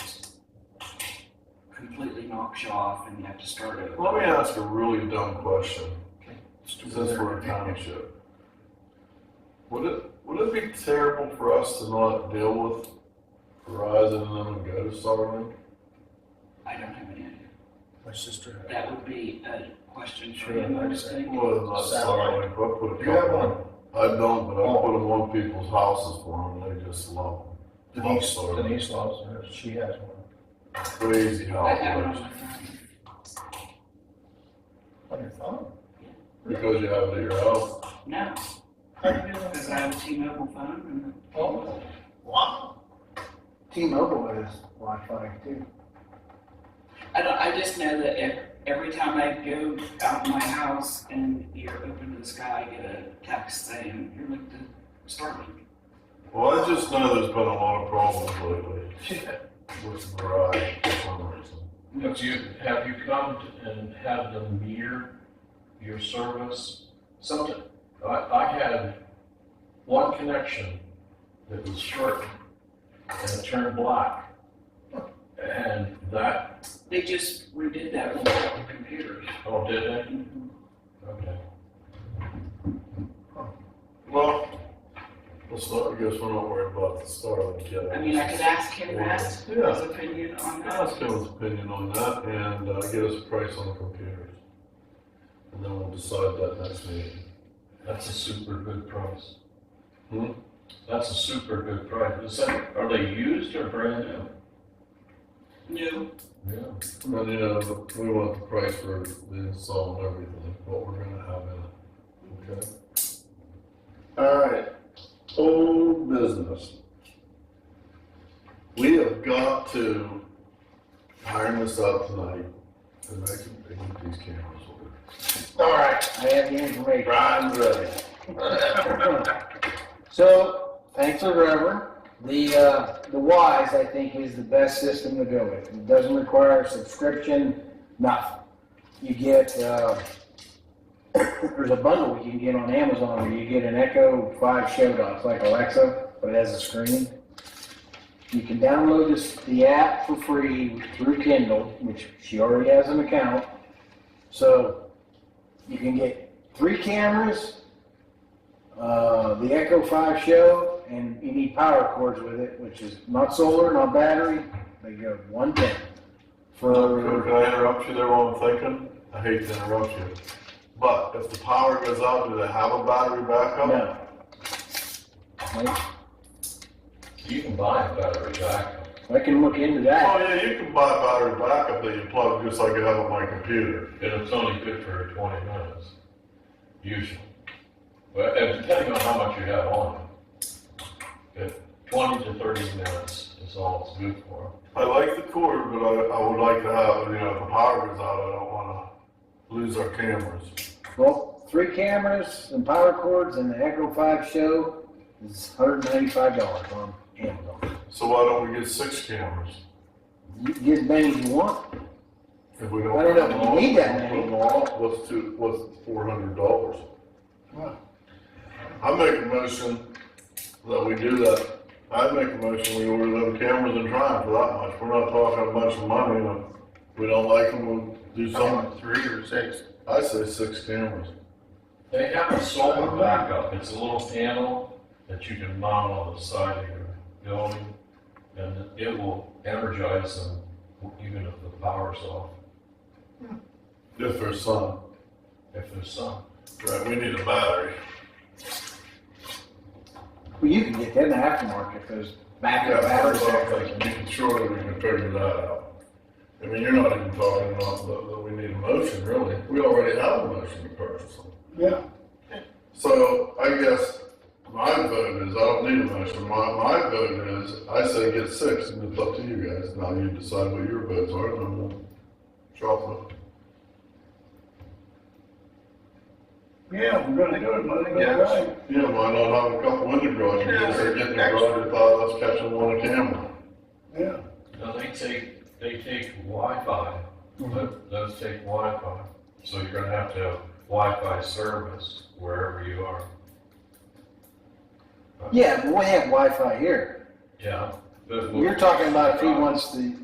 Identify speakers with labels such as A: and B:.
A: completely knocks you off and you have to start over.
B: Let me ask a really dumb question, since we're a
A: Okay.
B: township. Would it, would it be terrible for us to not deal with Verizon and them and go to Starlink?
A: I don't have any idea.
C: My sister had.
A: That would be a question for
C: Sure,
A: him, I
C: I'd
A: would
C: say.
A: think.
B: Well, not Starlink, but put a
C: You have
B: couple on. I don't, but
A: Oh.
B: I put them on people's houses for them, they just love, love
C: Denise,
B: Starlink.
C: Denise loves her, she has one.
B: Crazy how
A: I
B: it
A: have it on
B: works,
A: my phone.
C: On your phone?
B: because you have it at your house.
A: No,
C: How do you do
A: because
C: that?
A: I have a T-Mobile phone and.
C: Oh, wow.
D: T-Mobile has Wi-Fi too.
A: I don't, I just know that ev- every time I go out my house and you're open to the sky, I get a text saying, you're linked to Starlink.
B: Well, I just know there's been a lot of problems lately with Verizon for some reason.
E: Have you, have you come to- and had them meter your service? Something, I, I had one connection that was short and it turned black. And that,
A: They just redid that with the computer.
E: oh, did it? Okay.
B: Well, let's not, I guess we're not worried about the Starlink yet.
A: I mean, I could ask him, ask his
B: Yeah,
A: opinion on
B: ask
A: that.
B: him his opinion on that and uh, get us a price on the computers. And then we'll decide that next meeting.
E: That's a super good price.
B: Hmm?
E: That's a super good price. Is that, are they used or brand new?
A: No,
E: Yeah.
B: And you know, the- we want the price for the install and everything, what we're gonna have in it, okay? All right, old business. We have got to iron this out tonight and make it, make these cameras work.
C: All right, I have the information.
B: Brian's ready.
C: So, thanks to Trevor, the, uh, the WISE, I think, is the best system to go with. It doesn't require a subscription, nothing. You get, uh, there's a bundle you can get on Amazon where you get an Echo 5 Showdown, it's like Alexa, but it has a screen. You can download this, the app for free through Kindle, which she already has an account. So, you can get three cameras, uh, the Echo 5 show, and you need power cords with it, which is not solar, not battery. They go 110
B: Well,
C: for
B: Can I interrupt you there while I'm thinking? I hate to interrupt you. But if the power goes out, do they have a battery backup?
C: no. Like,
E: You can buy a battery backup.
C: I can look into that.
B: Oh, yeah, you can buy battery backup that you plug just like I have on my computer.
E: And it's only good for twenty minutes, usually. But and depending on how much you have on it. But twenty to thirty minutes is all it's good for.
B: I like the cord, but I, I would like to have, you know, if the power goes out, I don't wanna lose our cameras.
C: Well, three cameras and power cords and the Echo 5 show is $195 on Amazon.
B: So why don't we get six cameras?
C: You can get as many as you want.
B: If we don't.
C: I don't know, you
B: Well,
C: need that many.
B: well, What's two, what's four hundred dollars? I make a motion that we do that. I make a motion we order them cameras and try them for that much. We're not talking a bunch of money, and if we don't like them, we'll do something.
F: three or six.
B: I say six cameras.
E: They have a solar backup. It's a little panel that you can mount on the side of your building. And it will energize them even if the power's off,
B: If there's sun.
E: if there's sun.
B: Right, we need a battery.
C: Well, you can get them in the aftermarket, those backup battery
B: Yeah,
C: sets.
B: we can surely we can figure that out. I mean, you're not even talking about that, that we need a motion, really. We already have a motion to purchase them.
D: Yeah.
B: So I guess my vote is, I don't need a motion, my, my vote is, I say get six, and it's up to you guys, now you decide what your votes are, and then we'll drop them.
D: Yeah, we're gonna do it, Monday.
F: Yeah.
D: right.
B: Yeah, why not have a couple window garages, because they're getting a garage, they thought, let's catch them on a camera.
D: Yeah.
E: Now, they take, they take Wi-Fi,
C: Mm-hmm.
E: but those take Wi-Fi. So you're gonna have to have Wi-Fi service wherever you are.
C: Yeah, but we have Wi-Fi here.
E: Yeah. Uh, but we'll-
C: You're talking about if he wants to